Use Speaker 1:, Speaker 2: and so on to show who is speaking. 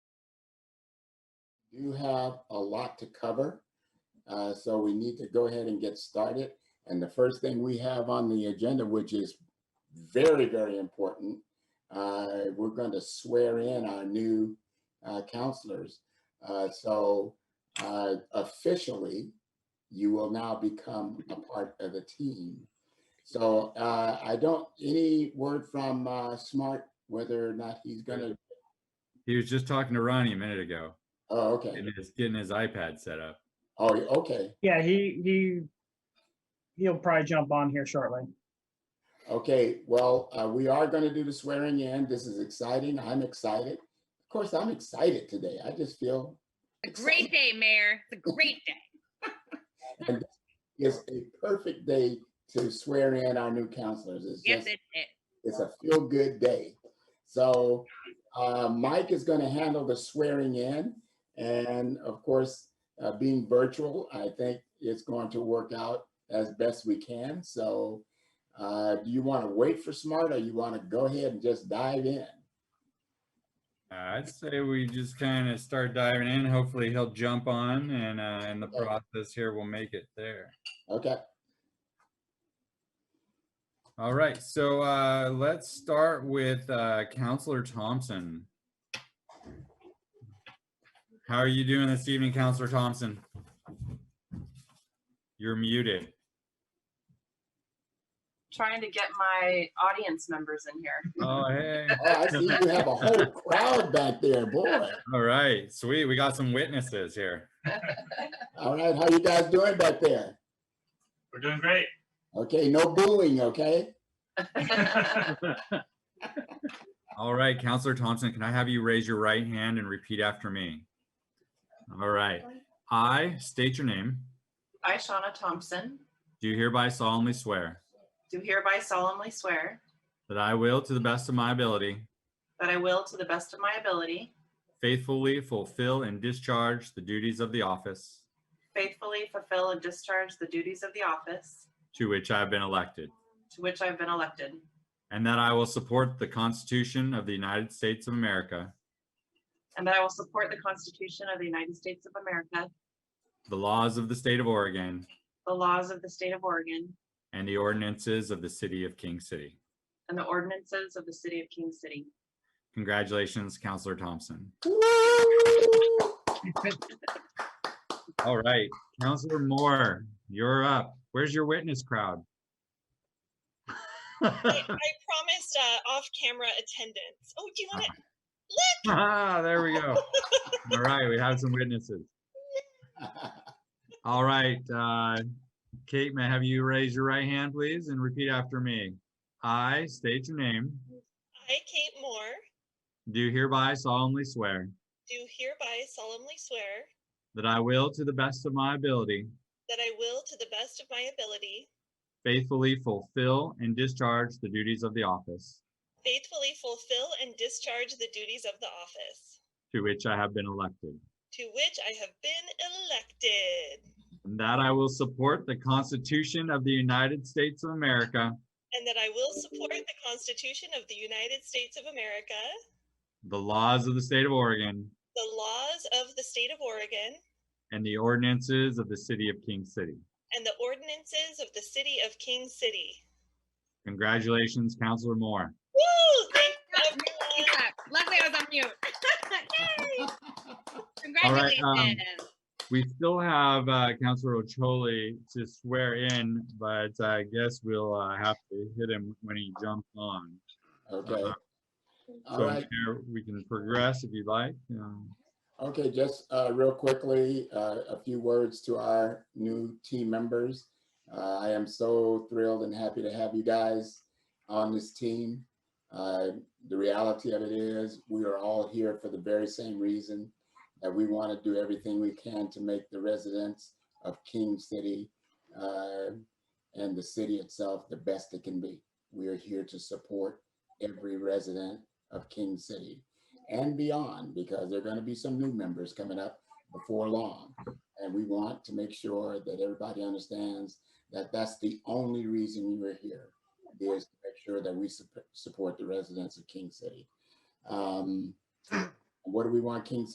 Speaker 1: do have a lot to cover. Uh, So we need to go ahead and get started. And the first thing we have on the agenda, which is very, very important, uh, we're going to swear in our new uh, counselors. Uh, So uh, officially, you will now become a part of the team. So uh, I don't, any word from uh, Smart, whether or not he's going to,
Speaker 2: He was just talking to Ronnie a minute ago,
Speaker 1: oh, okay.
Speaker 2: getting his, getting his iPad set up.
Speaker 1: Oh, okay.
Speaker 3: Yeah, he, he, he'll probably jump on here shortly.
Speaker 1: Okay, well, uh, we are going to do the swearing in. This is exciting. I'm excited. Of course, I'm excited today. I just feel
Speaker 4: A great day, Mayor. It's a great day.
Speaker 1: it's a perfect day to swear in our new counselors. It's
Speaker 4: Yes,
Speaker 1: just,
Speaker 4: it is.
Speaker 1: it's a feel-good day. So uh, Mike is going to handle the swearing in. And of course, uh, being virtual, I think it's going to work out as best we can. So uh, do you want to wait for Smart or you want to go ahead and just dive in?
Speaker 2: Uh, I'd say we just kind of start diving in. Hopefully he'll jump on and, uh, in the process here, we'll make it there.
Speaker 1: Okay.
Speaker 2: All right, so, uh, let's start with, uh, Counselor Thompson. How are you doing this evening, Counselor Thompson? You're muted.
Speaker 5: trying to get my audience members in here.
Speaker 2: Oh, hey.
Speaker 1: Oh, I see you have a whole crowd back there, boy.
Speaker 2: All right, sweet. We got some witnesses here.
Speaker 1: All right, how you guys doing back there?
Speaker 6: We're doing great.
Speaker 1: Okay, no booing, okay?
Speaker 2: All right, Counselor Thompson, can I have you raise your right hand and repeat after me? All right. I state your name,
Speaker 5: I, Shauna Thompson,
Speaker 2: do hereby solemnly swear
Speaker 5: do hereby solemnly swear
Speaker 2: that I will, to the best of my ability,
Speaker 5: that I will, to the best of my ability,
Speaker 2: faithfully fulfill and discharge the duties of the office
Speaker 5: faithfully fulfill and discharge the duties of the office
Speaker 2: to which I have been elected,
Speaker 5: to which I've been elected,
Speaker 2: and that I will support the Constitution of the United States of America,
Speaker 5: and that I will support the Constitution of the United States of America,
Speaker 2: the laws of the state of Oregon,
Speaker 5: the laws of the state of Oregon,
Speaker 2: and the ordinances of the city of King City.
Speaker 5: and the ordinances of the city of King City.
Speaker 2: Congratulations, Counselor Thompson.
Speaker 1: Woo!
Speaker 2: All right, Counselor Moore, you're up. Where's your witness crowd?
Speaker 7: I, I promised uh, off-camera attendance. Oh, do you want to?
Speaker 2: Ah, there we go. All right, we have some witnesses. All right, uh, Kate, may I have you raise your right hand, please, and repeat after me? I state your name,
Speaker 7: I, Kate Moore,
Speaker 2: do hereby solemnly swear
Speaker 7: do hereby solemnly swear
Speaker 2: that I will, to the best of my ability,
Speaker 7: that I will, to the best of my ability,
Speaker 2: faithfully fulfill and discharge the duties of the office
Speaker 7: faithfully fulfill and discharge the duties of the office
Speaker 2: to which I have been elected.
Speaker 7: to which I have been elected,
Speaker 2: And that I will support the Constitution of the United States of America,
Speaker 7: and that I will support the Constitution of the United States of America,
Speaker 2: the laws of the state of Oregon,
Speaker 7: the laws of the state of Oregon,
Speaker 2: and the ordinances of the city of King City.
Speaker 7: and the ordinances of the city of King City.
Speaker 2: Congratulations, Counselor Moore.
Speaker 7: Woo! Thank you,
Speaker 4: Keep
Speaker 7: everyone.
Speaker 4: up. Luckily, I was on mute. Yay. Congratulations.
Speaker 2: um, We still have uh, Counselor Ocholi to swear in, but I guess we'll uh, have to hit him when he jumps on.
Speaker 1: Okay. All
Speaker 2: So
Speaker 1: right,
Speaker 2: Mayor, we can progress if you'd like. Um,
Speaker 1: okay, just uh, real quickly, uh, a few words to our new team members. Uh, I am so thrilled and happy to have you guys on this team. Uh, The reality of it is, we are all here for the very same reason, that we want to do everything we can to make the residents of King City uh, and the city itself the best it can be. We are here to support every resident of King City and beyond, because there are going to be some new members coming up before long. And we want to make sure that everybody understands that that's the only reason you are here, is to make sure that we sup- support the residents of King City. Um, What do we want King